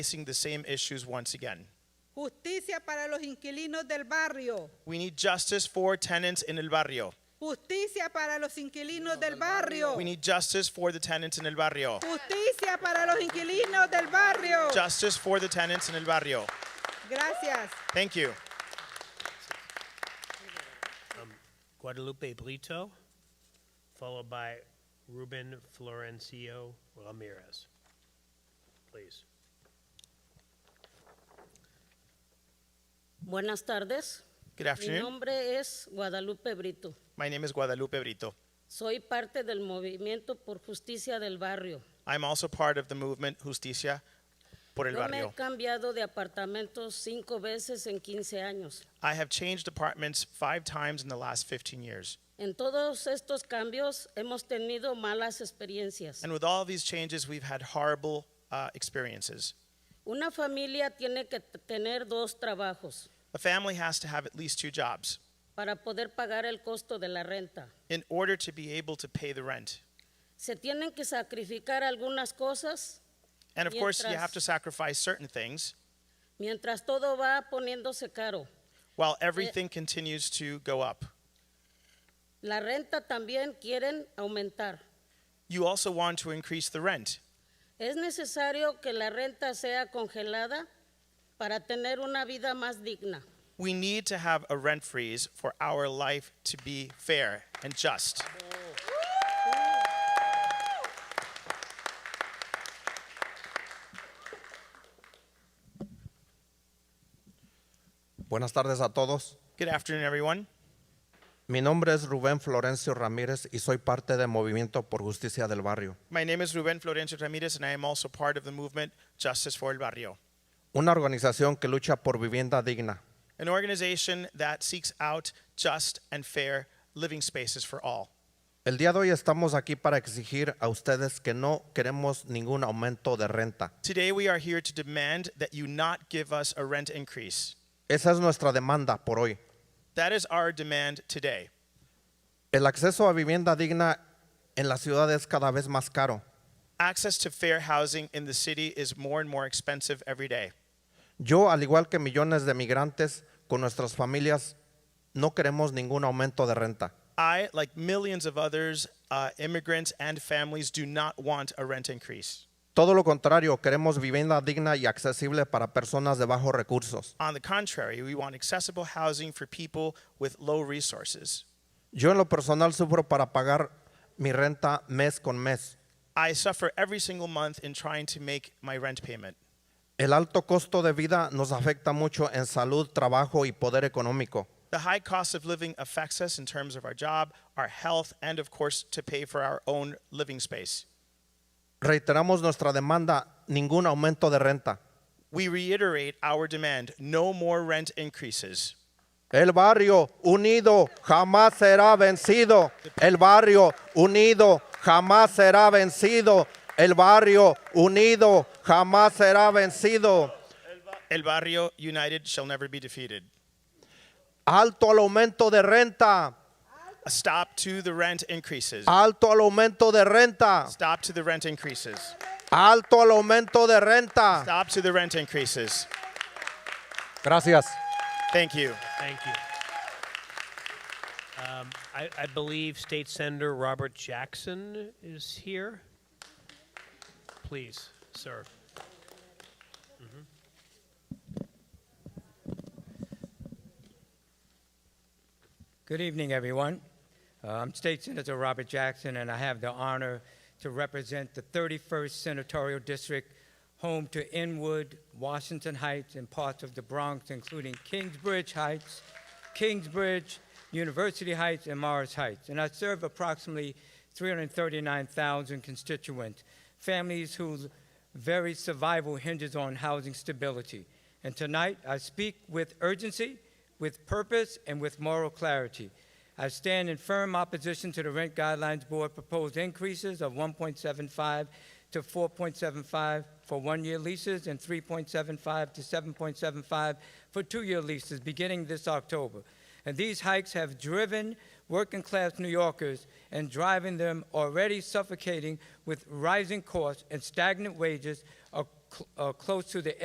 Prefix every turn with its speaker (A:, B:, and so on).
A: facing the same issues once again.
B: Justicia para los inquilinos del barrio.
A: We need justice for tenants in El Barrio.
B: Justicia para los inquilinos del barrio.
A: We need justice for the tenants in El Barrio.
B: Justicia para los inquilinos del barrio.
A: Justice for the tenants in El Barrio.
B: Gracias.
A: Thank you.
C: Guadalupe Brito, followed by Ruben Florencio Ramirez. Please.
D: Buenas tardes.
A: Good
D: Mi
A: afternoon.
D: nombre es Guadalupe Brito.
A: My name is Guadalupe Brito.
D: Soy parte del movimiento por justicia del barrio.
A: I'm also part of the movement Justicia por El
D: Yo me
A: Barrio.
D: he cambiado de apartamento cinco veces en 15 años.
A: I have changed apartments five times in the last 15 years.
D: En todos estos cambios hemos tenido malas experiencias.
A: And with all these changes, we've had horrible uh, experiences.
D: Una familia tiene que t- tener dos trabajos
A: A family has to have at least two jobs
D: para poder pagar el costo de la renta.
A: in order to be able to pay the rent.
D: Se tienen que sacrificar algunas cosas
A: And of course, you have
D: Mientras-
A: to sacrifice certain things
D: mientras todo va poniéndose caro.
A: while everything continues to go up.
D: La renta también quieren aumentar.
A: You also want to increase the rent.
D: Es necesario que la renta sea congelada para tener una vida más digna.
A: We need to have a rent freeze for our life to be fair and just.
E: Buenas tardes a todos.
A: Good afternoon, everyone.
E: Mi nombre es Rubén Florencio Ramírez y soy parte del Movimiento por Justicia del Barrio,
A: My name is Ruben Florencio Ramirez, and I am also part of the movement Justice for El Barrio,
E: una organización que lucha por vivienda digna.
A: an organization that seeks out just and fair living spaces for all.
E: El día de hoy estamos aquí para exigir a ustedes que no queremos ningún aumento de renta.
A: Today, we are here to demand that you not give us a rent increase.
E: Esa es nuestra demanda por hoy.
A: That is our demand today.
E: El acceso a vivienda digna en la ciudad es cada vez más caro.
A: Access to fair housing in the city is more and more expensive every day.
E: Yo, al igual que millones de migrantes con nuestras familias, no queremos ningún aumento de renta.
A: I, like millions of others, uh, immigrants and families, do not want a rent increase.
E: Todo lo contrario, queremos vivienda digna y accesible para personas de bajos recursos.
A: On the contrary, we want accessible housing for people with low resources.
E: Yo en lo personal sufro para pagar mi renta mes con mes.
A: I suffer every single month in trying to make my rent payment.
E: El alto costo de vida nos afecta mucho en salud, trabajo y poder económico.
A: The high cost of living affects us in terms of our job, our health, and of course, to pay for our own living space.
E: Reiteramos nuestra demanda, ningún aumento de renta.
A: We reiterate our demand no more rent increases.
E: El barrio unido jamás será vencido. El barrio unido jamás será vencido. El barrio unido jamás será vencido.
A: El Barrio United shall never be defeated.
E: Alto al aumento de renta.
A: A stop to the rent increases.
E: Alto al aumento de renta.
A: Stop to the rent increases.
E: Alto al aumento de renta.
A: Stop to the rent increases.
E: Gracias.
A: Thank you.
C: Thank you. Um, I, I believe State Senator Robert Jackson is here. Please, sir.
F: Good evening, everyone. Uh, I'm State Senator Robert Jackson, and I have the honor to represent the 31st Senatorial District, home to Inwood, Washington Heights, and parts of the Bronx, including Kingsbridge Heights, Kingsbridge, University Heights, and Morris Heights. And I serve approximately 339,000 constituents, families whose very survival hinges on housing stability. And tonight, I speak with urgency with purpose and with moral clarity. I stand in firm opposition to the Rent Guidelines Board proposed increases of 1.75 to 4.75 for one-year leases and 3.75 to 7.75 for two-year leases beginning this October. And these hikes have driven working-class New Yorkers and driving them already suffocating with rising costs and stagnant wages ac- cl- uh, close to the